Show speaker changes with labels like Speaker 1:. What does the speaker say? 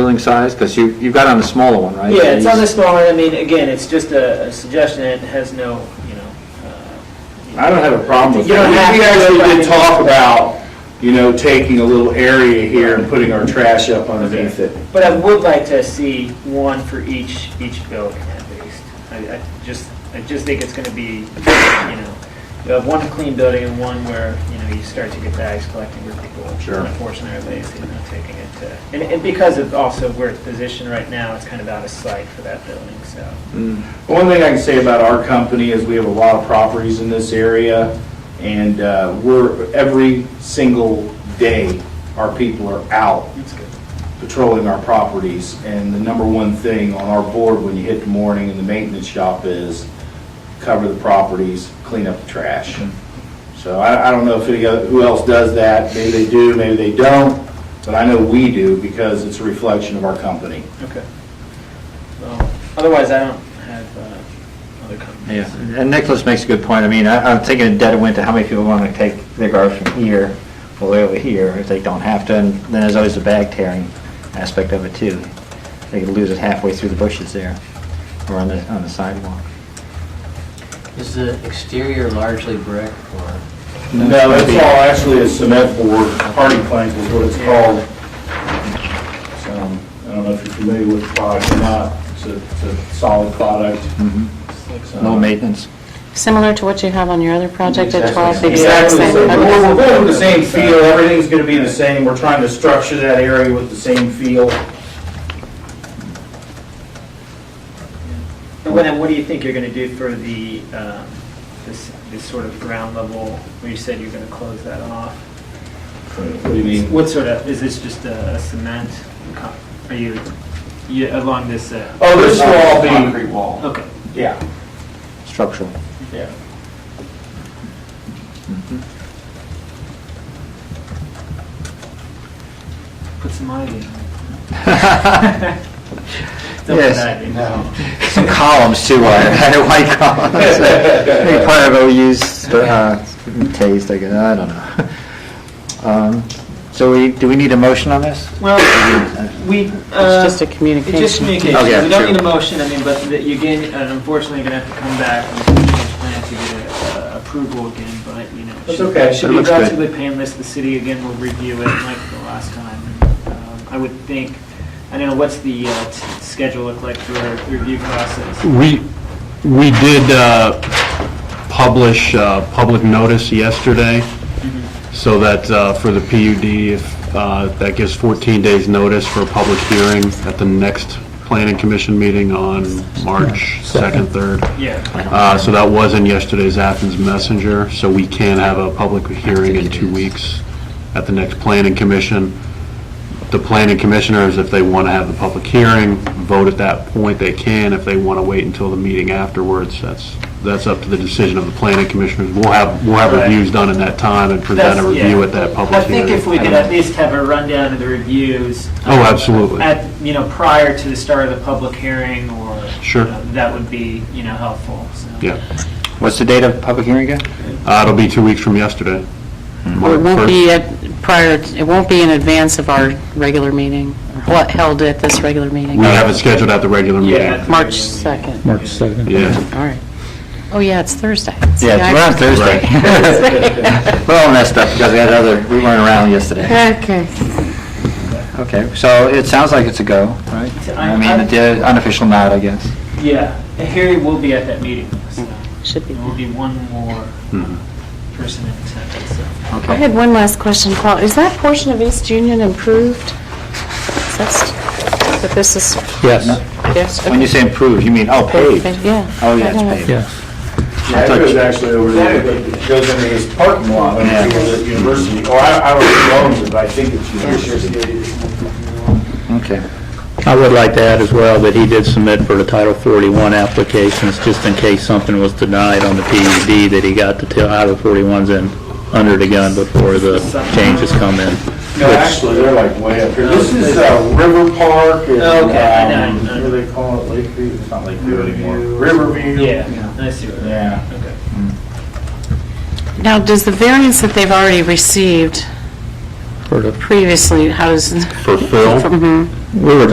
Speaker 1: building size? Because you, you've got on the smaller one, right?
Speaker 2: Yeah, it's on the smaller, I mean, again, it's just a a suggestion, it has no, you know. uh,
Speaker 3: I don't have a problem with
Speaker 2: You
Speaker 3: that.
Speaker 2: don't have
Speaker 3: We-
Speaker 2: to,
Speaker 3: We
Speaker 2: but I
Speaker 3: actually did
Speaker 2: mean-
Speaker 3: talk about, you know, taking a little area here and putting our trash up underneath it.
Speaker 2: But I would like to see one for each, each building at least. I, I just, I just think it's gonna be, you know, you have one clean building and one where, you know, you start to get bags collecting where people.
Speaker 3: Sure.
Speaker 2: Unfortunately, are lazy and not taking it to, and, and because of also where it's positioned right now, it's kind of out of sight for that building, so.
Speaker 3: Mm. One thing I can say about our company is we have a lot of properties in this area, and uh, we're, every single day, our people are out
Speaker 2: It's good.
Speaker 3: patrolling our properties, and the number one thing on our board when you hit the morning in the maintenance shop is cover the properties, clean up the trash. So I, I don't know if any, other- who else does that, maybe they do, maybe they don't, but I know we do because it's a reflection of our company.
Speaker 2: Okay. Well, otherwise, I don't have, uh, other
Speaker 1: Yeah,
Speaker 2: comments.
Speaker 1: and Nicholas makes a good point. I mean, I, I'm thinking dead of winter, how many people want to take their garbage from here all the way over here if they don't have to? And then there's always the bag tearing aspect of it too. They could lose it halfway through the bushes there or on the, on the sidewalk.
Speaker 4: Is the exterior largely brick or?
Speaker 3: No, it's all actually a cement board, hardy plank is what it's called. So, Um, I don't know if you're familiar with the product or not, it's a, it's a solid product. So-
Speaker 1: No maintenance.
Speaker 5: Similar to what you have on your other project at 12?
Speaker 3: Exactly, the same.
Speaker 5: okay.
Speaker 3: we're we're going with the same feel, everything's gonna be the same, we're trying to structure that area with the same feel.
Speaker 2: And then what do you think you're going to do for the, um, this, this sort of ground level, where you said you're going to close that off?
Speaker 3: What do you mean?
Speaker 2: What sort of, is this just a cement, co- are you, you, along this, uh,
Speaker 3: Oh, this will all be,
Speaker 6: Concrete wall.
Speaker 2: okay.
Speaker 3: yeah,
Speaker 1: Structural.
Speaker 3: yeah.
Speaker 2: Put some ivy in.
Speaker 1: Yes.
Speaker 2: No.
Speaker 1: Some columns too, I had white columns. I think part of OU's uh, taste, I guess, I don't know. Um, So we, do we need a motion on this?
Speaker 2: Well, we, uh.
Speaker 5: It's just a
Speaker 2: It's just
Speaker 5: communication.
Speaker 2: communication,
Speaker 1: Okay,
Speaker 2: we don't
Speaker 1: true.
Speaker 2: need a motion, I mean, but that you again, uh, unfortunately, you're gonna have to come back and change plan to get a- a approval again, but, you know. it
Speaker 3: That's
Speaker 2: should-
Speaker 3: okay.
Speaker 2: Should
Speaker 1: That
Speaker 2: be
Speaker 1: looks good.
Speaker 2: relatively painless, the city again will review it like the last time. Um, I would think, I don't know, what's the uh, t- schedule look like for the review process?
Speaker 7: We, we did uh, publish uh, public notice yesterday, so that uh, for the PUD, if, uh, that gives 14 days' notice for a public hearing at the next planning commission meeting on March 2nd, 3rd.
Speaker 2: Yeah,
Speaker 7: Uh, So that was in yesterday's Athens Messenger, so we can have a public hearing in two weeks at the next planning commission. The planning commissioners, if they want to have the public hearing, vote at that point, they can. If they want to wait until the meeting afterwards, that's, that's up to the decision of the planning commissioners. We'll have, we'll have
Speaker 2: Right.
Speaker 7: reviews done in that time and present a
Speaker 2: That's- yeah.
Speaker 7: review at that
Speaker 2: I
Speaker 7: public hearing.
Speaker 2: think if we could at least have a rundown of the reviews.
Speaker 7: Oh,
Speaker 2: um,
Speaker 7: absolutely.
Speaker 2: At, you know, prior to the start of the public hearing, or. you
Speaker 7: Sure.
Speaker 2: know, That would be, you know, helpful, so.
Speaker 7: Yeah,
Speaker 1: What's the date of public hearing again?
Speaker 7: Uh, it'll be two weeks from yesterday.
Speaker 5: Or It
Speaker 7: March
Speaker 5: won't
Speaker 7: 1st.
Speaker 5: be at prior, it won't be in advance of our regular meeting, or what held at this regular meeting?
Speaker 7: We have it scheduled at the regular meeting.
Speaker 2: Yeah.
Speaker 5: March 2nd,
Speaker 8: March 2nd.
Speaker 7: Yeah.
Speaker 5: all right. Oh, yeah, it's Thursday. See,
Speaker 1: Yeah,
Speaker 5: I-
Speaker 1: it's around Thursday. We're all messed up because we had other, we weren't around yesterday.
Speaker 5: Okay.
Speaker 1: Okay, so it sounds like it's a go, right? I mean, the unofficial nod, I guess.
Speaker 2: Yeah, and Harry will be at that meeting, so
Speaker 5: Should be.
Speaker 2: there will be one more
Speaker 7: Mm-hmm.
Speaker 2: uh, person in attendance. so.
Speaker 5: I had one last question, Paul. Is that portion of East Union improved? Is That's, but this is,
Speaker 8: Yes,
Speaker 5: yes,
Speaker 1: When you say improve, you mean, oh, paved?
Speaker 5: yeah.
Speaker 1: Oh, yeah, it's
Speaker 5: I don't know.
Speaker 1: paved.
Speaker 8: yes.
Speaker 3: Yeah, it goes actually over there, it goes into his parking lot, over
Speaker 1: Yeah.
Speaker 3: here at university, or I, I don't know who owns it, but I think it's university.
Speaker 1: Okay.
Speaker 8: I would like to add as well that he did submit for the Title 41 applications, just in case something was denied on the PUD, that he got the Title 41s in under the gun before the changes come in.
Speaker 3: No, actually, they're like way up here. This is, uh, River Park, and,
Speaker 2: Okay, I
Speaker 3: um,
Speaker 2: know, I know.
Speaker 3: what do they call it, Lakeview, it's not Lakeview anymore. Riverview.
Speaker 2: Yeah, I see what that,
Speaker 3: Yeah.
Speaker 2: okay.
Speaker 5: Now, does the variance that they've already received
Speaker 8: For the-
Speaker 5: previously, how does?
Speaker 1: Oh.
Speaker 7: For Phil?
Speaker 5: Mhm.
Speaker 8: We were